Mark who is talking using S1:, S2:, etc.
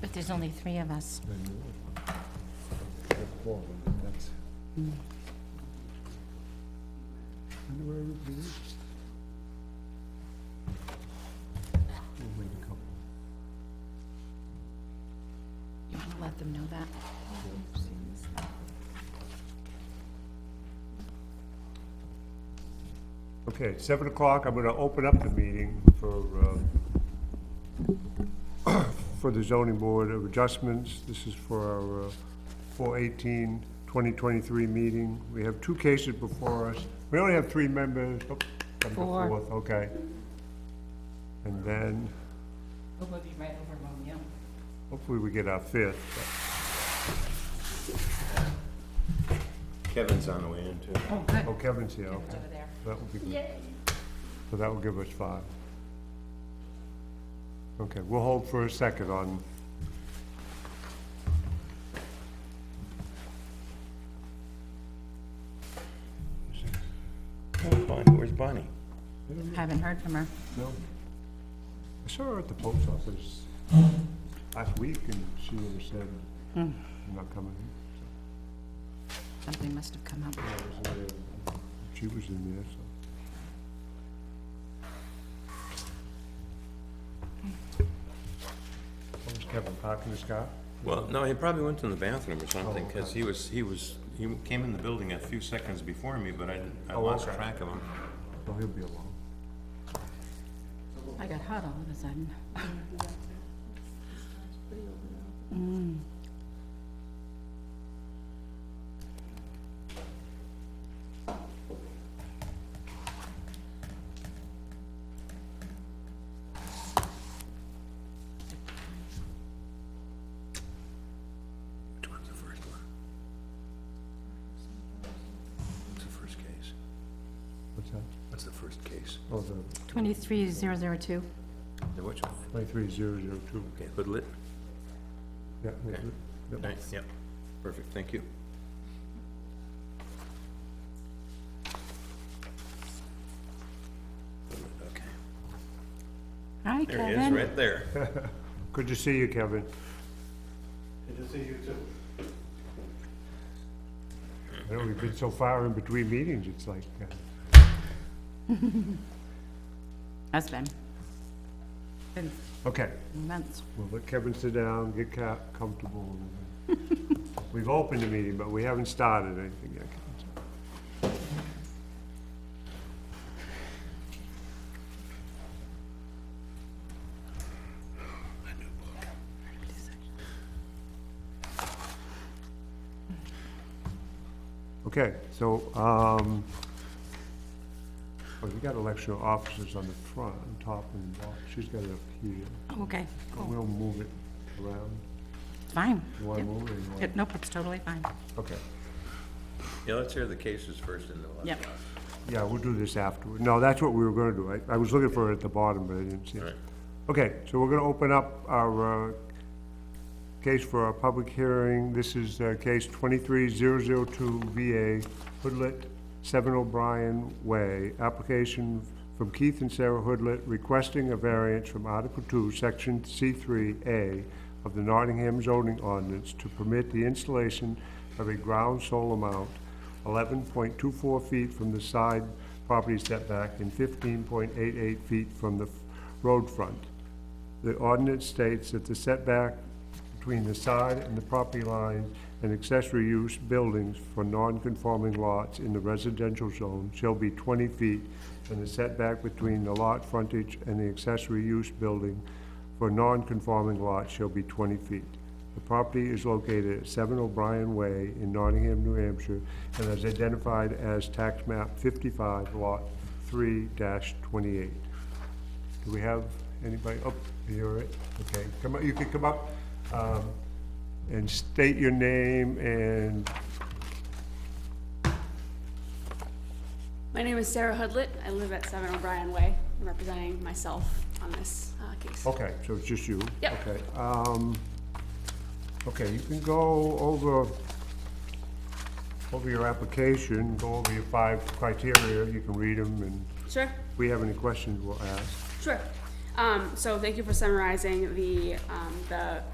S1: But there's only three of us. You want to let them know that?
S2: Okay, seven o'clock, I'm gonna open up the meeting for, uh, for the zoning board of adjustments. This is for our uh, 4/18, 2023 meeting. We have two cases before us. We only have three members. Oh, come to
S1: Four.
S2: fourth, Okay. And then
S1: We'll be right over Romeo.
S2: hopefully we get our fifth.
S3: Kevin's on the way in too.
S1: Oh, good.
S2: Oh, Kevin's here, okay.
S1: Over there.
S2: That would be good. So that will give us five. Okay, we'll hold for a second on.
S3: Where's Bonnie? Where's Bonnie?
S1: Haven't heard from her.
S2: No. I saw her at the post office last week and she never said, I'm not coming.
S1: Something must have come up.
S2: That was the day She was in there, so. What was Kevin parking his car?
S3: Well, no, he probably went in the bathroom or something, because he was, he was, he came in the building a few seconds before me, but I, didn't- I
S2: Oh,
S3: lost
S2: okay.
S3: track of him.
S2: Oh, he'll be along.
S1: I got hot all of a sudden.
S3: Which one's the first one? What's the first case?
S2: What's that?
S3: What's the first case?
S2: Oh, the
S1: 23002.
S3: The which one?
S2: twenty-three zero zero two.
S3: Okay, Hoodlit?
S2: Yeah, we'll
S3: Okay.
S2: do- yep.
S3: Right, Yep. Perfect, thank you. Hoodlit, Okay.
S1: Hi,
S3: There he is,
S1: Kevin.
S3: right there.
S2: Good to see you, Kevin.
S4: Good to see you too.
S2: I know we've been so far in between meetings, it's like, uh,
S1: Husband. Been
S2: okay,
S1: months.
S2: we'll let Kevin sit down, get ca- comfortable. and, uh, We've opened the meeting, but we haven't started anything yet. Kevin, so. Okay, so, um, oh, you got electional officers on the front, on top and bottom. She's got it up here.
S1: Okay,
S2: But We'll move it around.
S1: fine.
S2: You wanna move it or you
S1: Yeah,
S2: want?
S1: Nope, it's totally fine.
S2: Okay.
S3: Yeah, let's hear the cases first and then.
S1: Yep.
S2: Yeah, we'll do this afterward. No, that's what we were gonna do. I, I was looking for it at the bottom, but I didn't see it.
S3: Right.
S2: Okay, so we're gonna open up our, uh, case for our public hearing. This is, uh, case twenty-three zero zero two VA Hoodlet, Seven O'Brien Way. Application from Keith and Sarah Hoodlet requesting a variance from Article Two, Section C three A of the Nottingham zoning ordinance to permit the installation of a ground solar mount eleven point two four feet from the side property setback and fifteen point eight eight feet from the f- road front. The ordinance states that the setback between the side and the property line and accessory use buildings for non-conforming lots in the residential zone shall be twenty feet, and the setback between the lot frontage and the accessory use building for non-conforming lots shall be twenty feet. The property is located at seven O'Brien Way in Nottingham, New Hampshire, and is identified as tax map fifty-five, lot three twenty-eight. Do we have anybody, oh, you're it, okay, come up, you can come up, um, and state your name and,
S5: My name is Sarah Hoodlett. I live at 7 O'Brien Way. I'm representing myself on this uh, case.
S2: okay, so it's just you?
S5: Yep.
S2: Okay, um, okay, you can go over, over your application, go over your five criteria, you can read them, and
S5: Sure,
S2: if we have any questions, we'll ask.
S5: sure. Um, So thank you for summarizing the, um, the